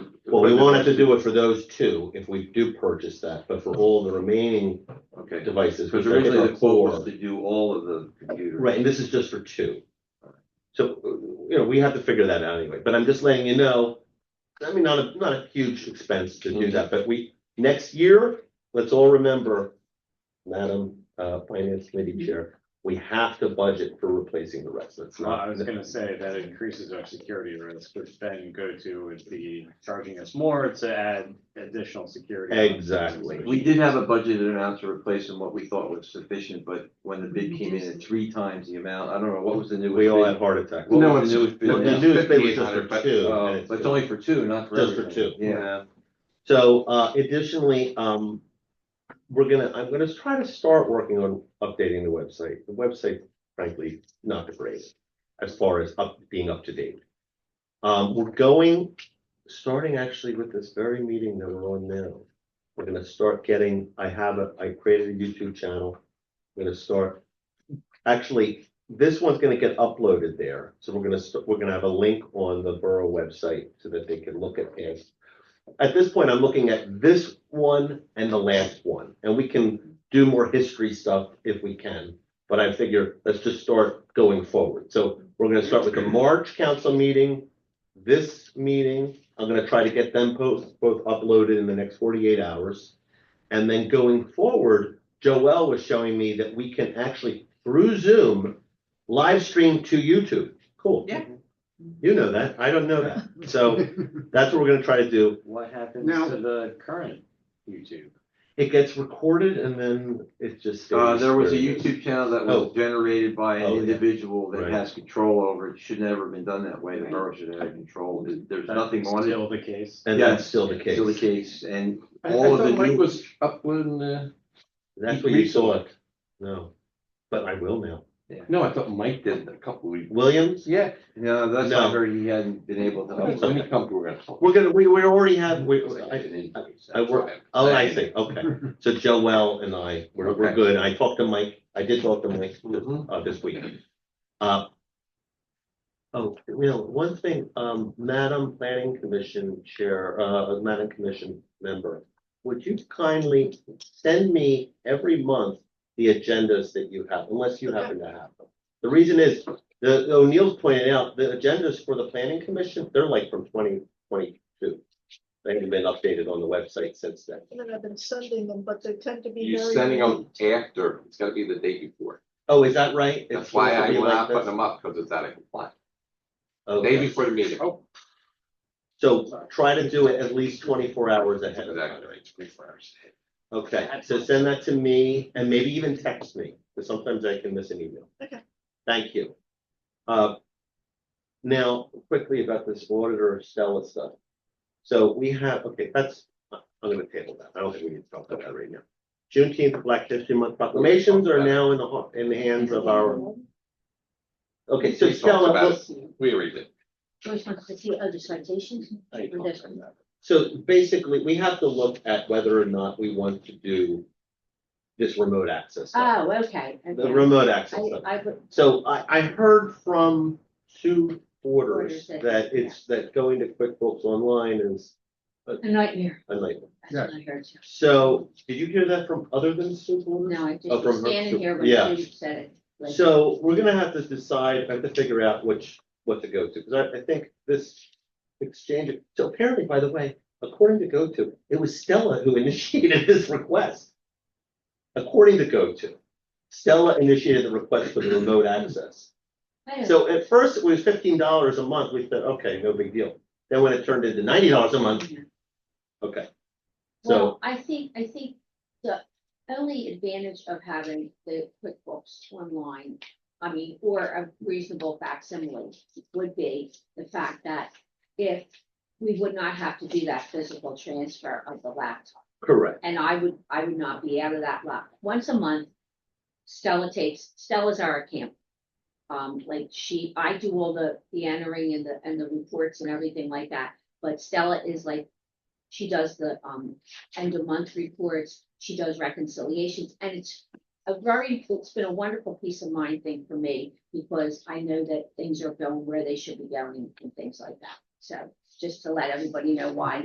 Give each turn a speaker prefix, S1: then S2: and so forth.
S1: Well, we wanted to do it for those two, if we do purchase that, but for all the remaining
S2: Okay,
S1: devices.
S2: because
S1: which I think
S2: originally
S1: are
S2: the quote was
S1: four,
S2: to do all of the computers.
S1: Right, and this is just for two. So, you know, we have to figure that out anyway, but I'm just letting you know, I mean, not a, not a huge expense to do that, but we, next year, let's all remember, Madam, uh, Finance Committee Chair, we have to budget for replacing the rest, that's
S3: Well, I
S1: not.
S3: was gonna say that increases our security risk, which then go to would be charging us more to add additional security.
S1: Exactly.
S2: We did have a budgeted amount to replace and what we thought was sufficient, but when the bid came in at three times the amount, I don't know, what was the newest?
S1: We all
S2: bid?
S1: had heart attacks.
S2: What was the newest bid?
S1: Well, the
S2: Yeah.
S1: newest bid was just for two,
S2: Uh,
S1: and it's-
S2: But it's only for two, not for
S1: Just for
S2: everything.
S1: two.
S2: Yeah,
S1: So uh additionally, um, we're gonna, I'm gonna try to start working on updating the website. The website frankly, not the greatest as far as up, being up to date. Um, we're going, starting actually with this very meeting that we're on now. We're gonna start getting, I have a, I created a YouTube channel. We're gonna start, actually, this one's gonna get uploaded there. So we're gonna, st- we're gonna have a link on the borough website so that they can look at past at this point, I'm looking at this one and the last one, and we can do more history stuff if we can. But I figure, let's just start going forward. So we're gonna start with the March council meeting, this meeting. I'm gonna try to get them both, both uploaded in the next forty-eight hours. And then going forward, Joel was showing me that we can actually, through Zoom, live stream to YouTube. Cool.
S4: Yeah.
S1: You know that. I don't know that. So that's what we're gonna try to do.
S3: What happens
S4: Now-
S3: to the current YouTube?
S1: It gets recorded and then it just. stays
S2: uh, there was a
S1: where it is.
S2: YouTube channel that was
S1: Oh.
S2: generated by
S1: Oh,
S2: an
S1: yeah.
S2: individual that
S1: Right.
S2: has control over it, should never have been done that way, the
S4: Right.
S2: borough should have had control, There- there's
S3: That's
S2: nothing on it.
S3: Still the case.
S1: And that's still the case.
S2: Still the case, and
S5: I, I
S2: all of
S5: thought
S2: the
S5: Mike
S2: new,
S5: was uh, uploading the,
S1: That's where you saw it. No, but I will now.
S5: no, I thought Mike did a couple weeks.
S1: Williams?
S5: Yeah.
S2: no, that's
S1: No.
S2: not her, he hadn't been able to
S5: Let
S2: upload.
S5: me come to her.
S1: We're gonna, we, we already have, we, I, I
S5: I
S1: work- oh, I see, okay. So Joel and I, we're, we're
S2: Okay.
S1: good. I talked to Mike. I did talk to Mike this-
S2: Mhm.
S1: uh, this week. Uh. Oh, you know, one thing, um, Madam Planning Commission Chair, uh, Madam Commission Member, would you kindly send me every month the agendas that you have, unless you happen to have them? The reason is, the O'Neill's pointed out, the agendas for the planning commission, they're like from twenty twenty-two. They haven't been updated on the website since then.
S4: And then I've been sending them, but they tend to be very.
S6: You're sending them after, it's gotta be the day before.
S1: Oh, is that right?
S6: That's
S1: It's
S6: why
S1: supposed to
S6: I
S1: be
S6: will
S1: like
S6: not put
S1: this?
S6: them up, because it's out of compliance. Day
S1: Okay,
S6: before the meeting. Oh.
S1: so try to do it at least twenty-four hours ahead of time.
S6: Exactly.
S1: Okay, so send that to me and maybe even text me, because sometimes I can miss an email.
S4: Okay.
S1: Thank you. Uh, Now, quickly about this auditor Stella stuff. So we have, okay, that's, I'm gonna table that. I don't think we need to talk about that right now. Juneteenth, Black History Month proclamations are now in the, ho- in the hands of our, okay, so
S6: We talked
S1: Stella,
S6: about
S1: let's-
S6: it. We read it.
S7: Which one's the two, oh, the citations? Or this one?
S1: So basically, we have to look at whether or not we want to do this remote access. stuff.
S7: Oh, okay.
S1: The
S7: okay.
S1: remote access.
S7: I,
S1: stuff.
S7: I, would-
S1: So I, I heard from two orders
S7: Orders that-
S1: that it's, that going to QuickBooks Online is
S7: a nightmare.
S1: a nightmare.
S5: Yeah.
S7: That's what I heard too.
S1: So did you hear that from other than Sue Porter?
S7: No, I just
S1: Oh, from
S7: was
S1: her-
S7: standing here
S1: yeah.
S7: when you said it. like-
S1: So we're gonna have to decide, I have to figure out which, what to go to, because I, I think this exchange, so apparently, by the way, according to GoTo, it was Stella who initiated this request. According to GoTo, Stella initiated the request for the remote access.
S7: I don't-
S1: So at first, it was fifteen dollars a month, we said, okay, no big deal. Then when it turned into ninety dollars a month, okay. So,
S7: Well, I think, I think the only advantage of having the QuickBooks online, I mean, or a reasonable facsimile would be the fact that if we would not have to do that physical transfer of the laptop.
S1: correct,
S7: and I would, I would not be out of that lot. Once a month, Stella takes, Stella's our account. Um, like she, I do all the, the entering and the, and the reports and everything like that, but Stella is like, she does the, um, end of month reports, she does reconciliations, and it's a very, it's been a wonderful peace of mind thing for me, because I know that things are going where they should be going and things like that. So, just to let everybody know why